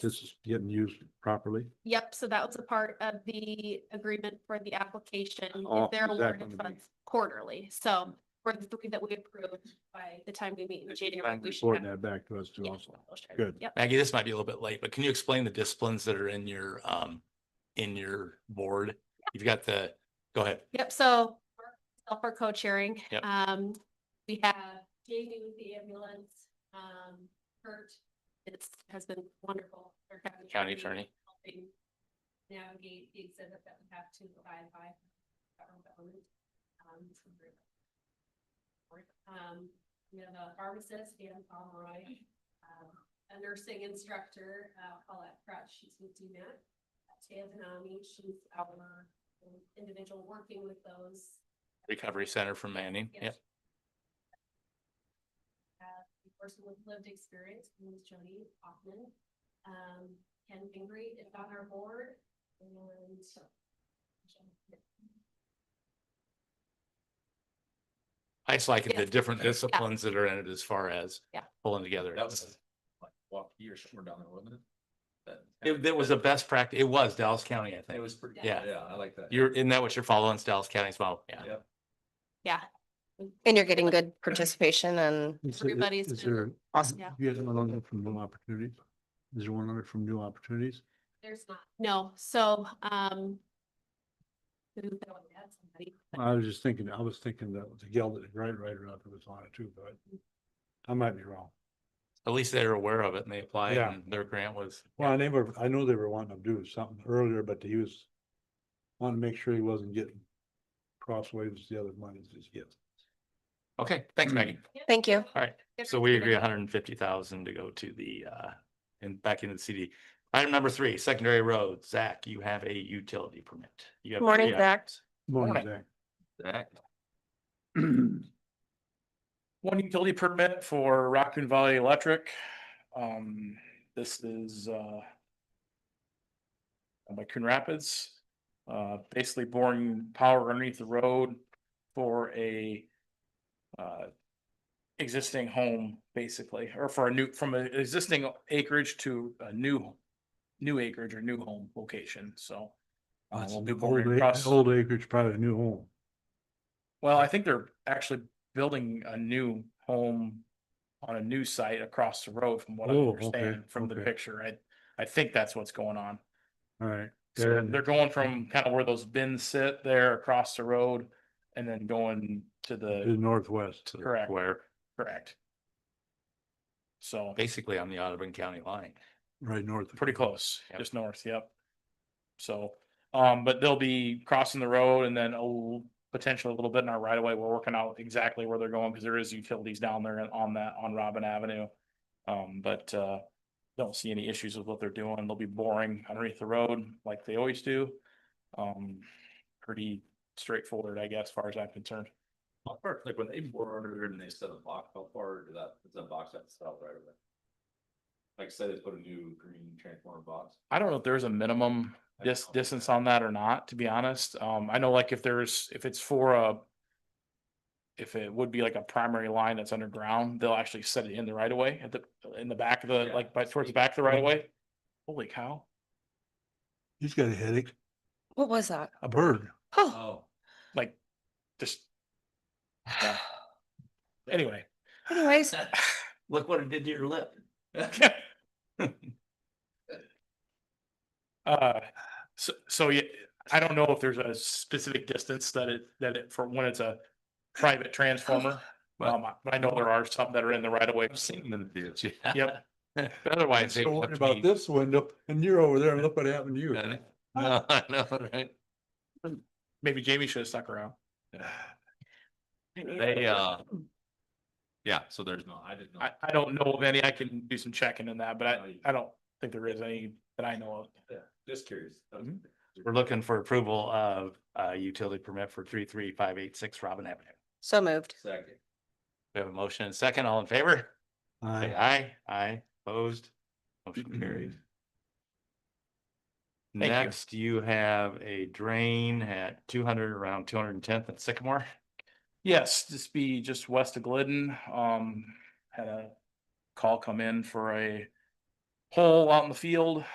this is getting used properly? Yep, so that was a part of the agreement for the application. is Oh, They're is that gonna awarded be- funds quarterly, so for the three that we approved by the time we meet in January. And we should reporting have- that back to us too yeah, also. we'll share. Good. Yep. Maggie, this might be a little bit late, but can you explain the disciplines that are in your, um, in your board? You've got the, go ahead. Yep, so myself for co-chairing. Yep. Um, we have Jamie with the ambulance, um, Kurt, it's, has been wonderful. our County attorney. Helping navigate the exhibit that we have to abide by. federal government, um, it's been great. Um, we have a pharmacist, Dan Pomeroy, um, a nursing instructor, uh, Paulette Crutch, she's with DMAT. Taya Zanami, she's our individual working with those. Recovery Center from Manning. Yep. Uh, the person with lived experience, her name is Jody Hoffman. Um, Ken Fingry is on our board and so. I just like the Yes. different disciplines that are in it as far as Yeah. pulling together. That was like walk years short down there, wasn't it? It, that was a best practice. It was Dallas County, I It think. was pretty. Yeah. Yeah, I like that. You're, isn't that what you're following? It's Dallas County's model. Yeah. Yep. Yeah, And you're getting good participation and Is there- Everybody's Is been- there, awesome. yeah. you guys have another from new opportunities? Is there one other from new opportunities? there's not. No, so, um. who- that would add somebody, but I was just thinking, I was thinking that the Geld that Right Rider out there was on it too, but I might be wrong. At least they were aware of it and they applied Yeah. and their grant was. Well, they were, I know they were wanting to do something earlier, but he was wanting to make sure he wasn't getting crossways with the other monies he's getting. Okay, thanks, Maggie. Thank you. All right. Good So we for agree you. hundred and fifty thousand to go to the uh, and back into the CD. Item number three, secondary roads. Zach, you have a utility permit. You have Morning, three Zach. items. Morning, Morning. Zach. Zach. One utility permit for Raccoon Valley Electric. Um, this is, uh, by Coon Rapids, uh, basically boring power underneath the road for a, uh, existing home, basically, or for a new, from an existing acreage to a new, new acreage or new home location, so. uh, That's we'll an be Old boring ac- across- old acreage, probably a new home. well, I think they're actually building a new home on a new site across the road from what I Oh, okay, understand from the okay. picture. I, I think that's what's going on. All right. So And- they're going from kind of where those bins sit there across the road and then going to The the, northwest. Correct. Where correct. So basically on the Audubon County line. Right north. of- pretty close, Yep. just north, yep. So, um, but they'll be crossing the road and then a l- potentially a little bit in our right of way. We're working out exactly where they're going because there is utilities down there and on that, on Robin Avenue. Um, but, uh, don't see any issues with what they're doing. They'll be boring underneath the road like they always do. Um, pretty straightforward, I guess, as far as I'm concerned. How far- Like when they bore under there and they set a box, how far did that, does that box have to sell right away? Like say they put a new green transformer box. I don't know if there's a minimum I don't dis- know. distance on that or not, to be honest. Um, I know like if there's, if it's for a. If it would be like a primary line that's underground, they'll actually set it in the right of way at the, in the back of the, Yeah. like by towards the back of the right of way. Mm-hmm. Holy cow, He's got a headache. What was that? A bird. Oh, Oh. like just. yeah. Anyway. anyways, Look what it did to your lip. Uh, so, so yeah, I don't know if there's a specific distance that it, that it, for when it's a private transformer. Well- Um, I- but I know there are some that are in the right of way. I've seen them do it. Yep. Otherwise. they So would worried have about been- this window and you're over there and look what happened to you. No, I know, right? Maybe Jamie should have stuck around. They, uh, Yeah, so there's no, I didn't know. I, I don't know of any. I can do some checking in that, but Oh, I, you- I don't think there is any that I know of. Yeah, Just curious. Mhm. we're looking for approval of a utility permit for three, three, five, eight, six Robin Avenue. so moved. Second. We have a motion and a second. All in favor? Say Aye. aye, aye, opposed, motion carried. you. Next, you have a drain at two hundred, around two hundred and tenth at Sycamore. Yes, this be just west of Glidden. Um, had a call come in for a hole out in the field.